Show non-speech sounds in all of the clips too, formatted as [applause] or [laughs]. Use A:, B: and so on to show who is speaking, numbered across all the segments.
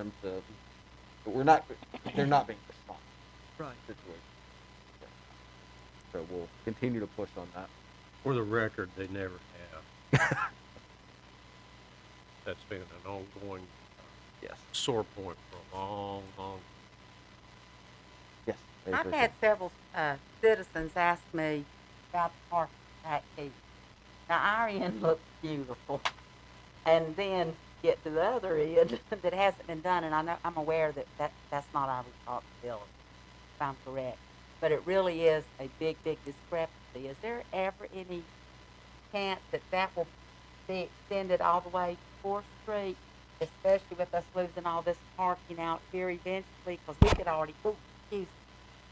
A: terms of, but we're not, they're not being responsible
B: Right.
A: to the situation. So we'll continue to push on that.
C: For the record, they never have. That's been an ongoing
A: Yes.
C: sore point for a long, long.
A: Yes. I
D: I've
A: agree.
D: had several uh, citizens ask me about the park back here. Now, our end [laughs] looks beautiful. And then get to the other end [laughs] that hasn't been done, and I know, I'm aware that, that that's not our responsibility, if I'm correct. But it really is a big, big discrepancy. Is there ever any chance that that will be extended all the way to 4th Street, especially with us losing all this parking out here eventually? Because we could already, ooh, excuse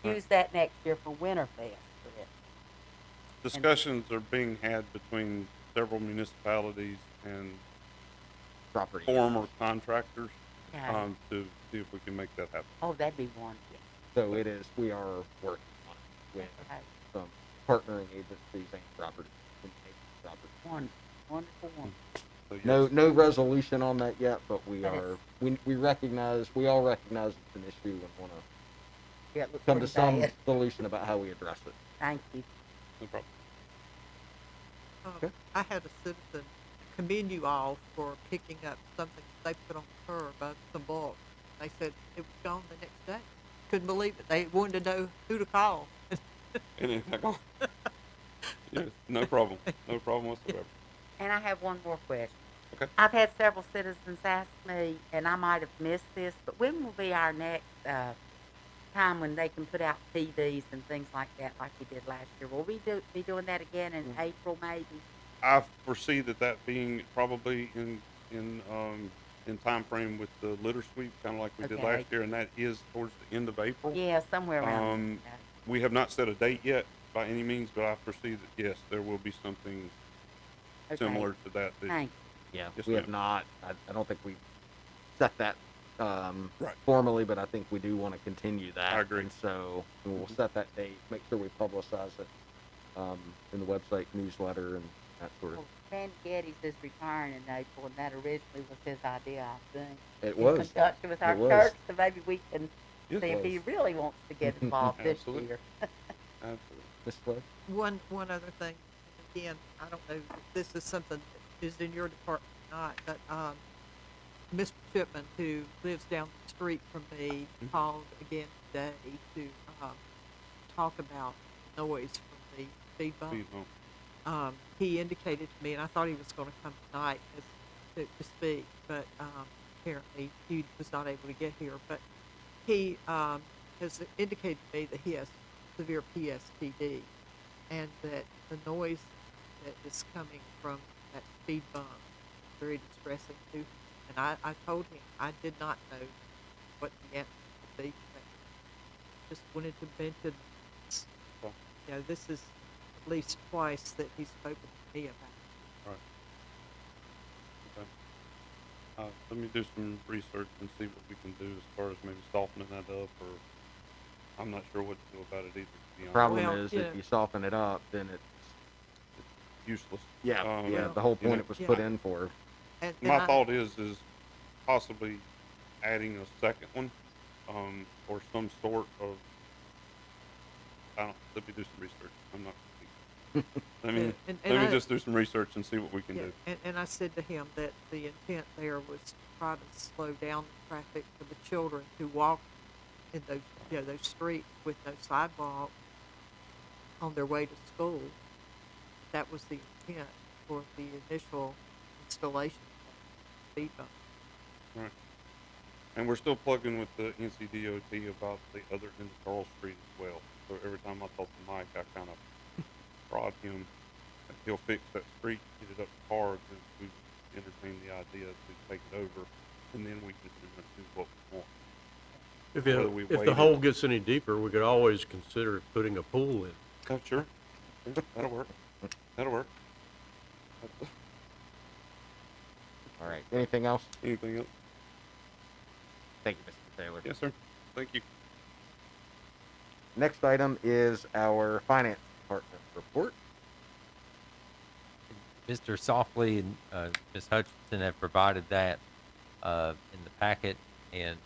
D: use that next year for Winterfest. for it.
E: Discussions are being had between several municipalities and
A: property.
E: former contractors,
D: Yeah.
E: um, to see if we can make that happen.
D: oh, that'd be wonderful.
A: So it is, we are working on it with
D: Okay.
A: some partnering agencies and property. and taking property.
D: Wonderful, wonderful,
E: Hmm.
D: wonderful.
E: So, yes.
A: No, no resolution on that yet, but we
D: That is-
A: are, we, we recognize, we all recognize it's an issue and wanna
D: Yeah, it looks
A: come to
D: pretty
A: some
D: bad.
A: solution about how we address it.
D: Thank you.
E: No problem.
B: Um,
A: Okay.
B: I had a citizen commend you all for picking up something they put on the curb of some bulk. They said it was gone the next day. Couldn't believe it. They wanted to know who to call.
E: And in fact, yes, no problem, no problem whatsoever.
D: And I have one more question.
E: Okay.
D: I've had several citizens ask me, and I might have missed this, but when will be our next uh, time when they can put out TVs and things like that, like we did last year? Will we do, be doing that again in
E: Mm.
D: April, maybe?
E: I foresee that that being probably in, in, um, in frame with the litter sweep, kinda like we did
D: Okay.
E: last year, and that is towards the end of April.
D: Yeah, somewhere around.
E: Um,
D: that.
E: We have not set a date yet by any means, but I foresee that, yes, there will be something
D: Okay.
E: similar to that this
D: Thank
A: Yeah,
E: Yes,
A: we have
E: ma'am.
A: not, I, I don't think we set that, um,
E: Right.
A: formally, but I think we do wanna continue that.
E: I agree.
A: And so we'll
E: Mhm.
A: set that date, make sure we publicize it, um, in the website newsletter and that sort of,
D: Well, Randy Geddes is retiring in April, and that originally was his idea, I think.
A: it
D: In
A: was.
D: conjunction with our
A: It was.
D: church, so maybe we can
E: Yes.
D: see if he
A: was.
D: really wants to get involved this
E: Absolutely.
D: year.
E: Absolutely.
A: Ms. Flood?
B: One one other thing, again, I don't know if this is something that is in your department or not, but um, Mr. Chipman, who lives down the street from me,
E: Mhm.
B: called again today to um, talk about noise from the speed
E: Please
B: bump.
E: don't.
B: Um, he indicated to me, and I thought he was going to come tonight as, to, to speak, but um, apparently he was not able to get here. But he um, has indicated to me that he has severe PSTD and that the noise that is coming from that speed bump is very distressing to him. And I, I told him I did not know what the answer would be. to that. Just wanted to mention, this.
E: Okay.
B: you know, this is at least twice that he's spoken to me about. it.
E: Uh, let me do some research and see what we can do as far as maybe softening that up, or I'm not sure what to do about it either. To be honest,
A: Problem
B: Well,
A: is,
B: yeah.
A: if you soften it up, then it's
E: useless.
A: yeah, Oh,
E: Um,
A: yeah. The whole
E: you
A: point
E: know,
A: it was
B: Yeah.
A: put in for.
B: And, and
E: My
B: I-
E: thought is is possibly adding a second one, um, or some sort of. I don't. Let me do some research. I'm not. I mean,
B: and- and- and
E: let me
B: I-
E: just do some research and see what we can
B: Yeah,
E: do.
B: and, and I said to him that the intent there was to try to slow down the traffic for the children who walk in those, you know, those streets with no sidewalk on their way to school. That was the intent for the initial installation of the speed bump.
E: And we're still plugging with the NCDOT about the other end of Charles Street as well. So every time I talk to Mike, I kind of prod him. that He'll fix that street, get it up to par, and we entertain the idea to take it over, and then we can pretty much do what we want.
C: If,
E: it- Whether we
C: if
E: waited-
C: the hole gets any deeper, we could always consider putting a pool in.
E: Oh, sure. Sure, That'll work. That'll work. That's-
A: All right. Anything else?
E: Anything else?
A: Thank you, Mr. Taylor.
E: Yes, sir. Thank you.
A: Next item is our finance department report.
F: Mr. Softly and uh, Ms. Hutchinson have provided that uh, in the packet. and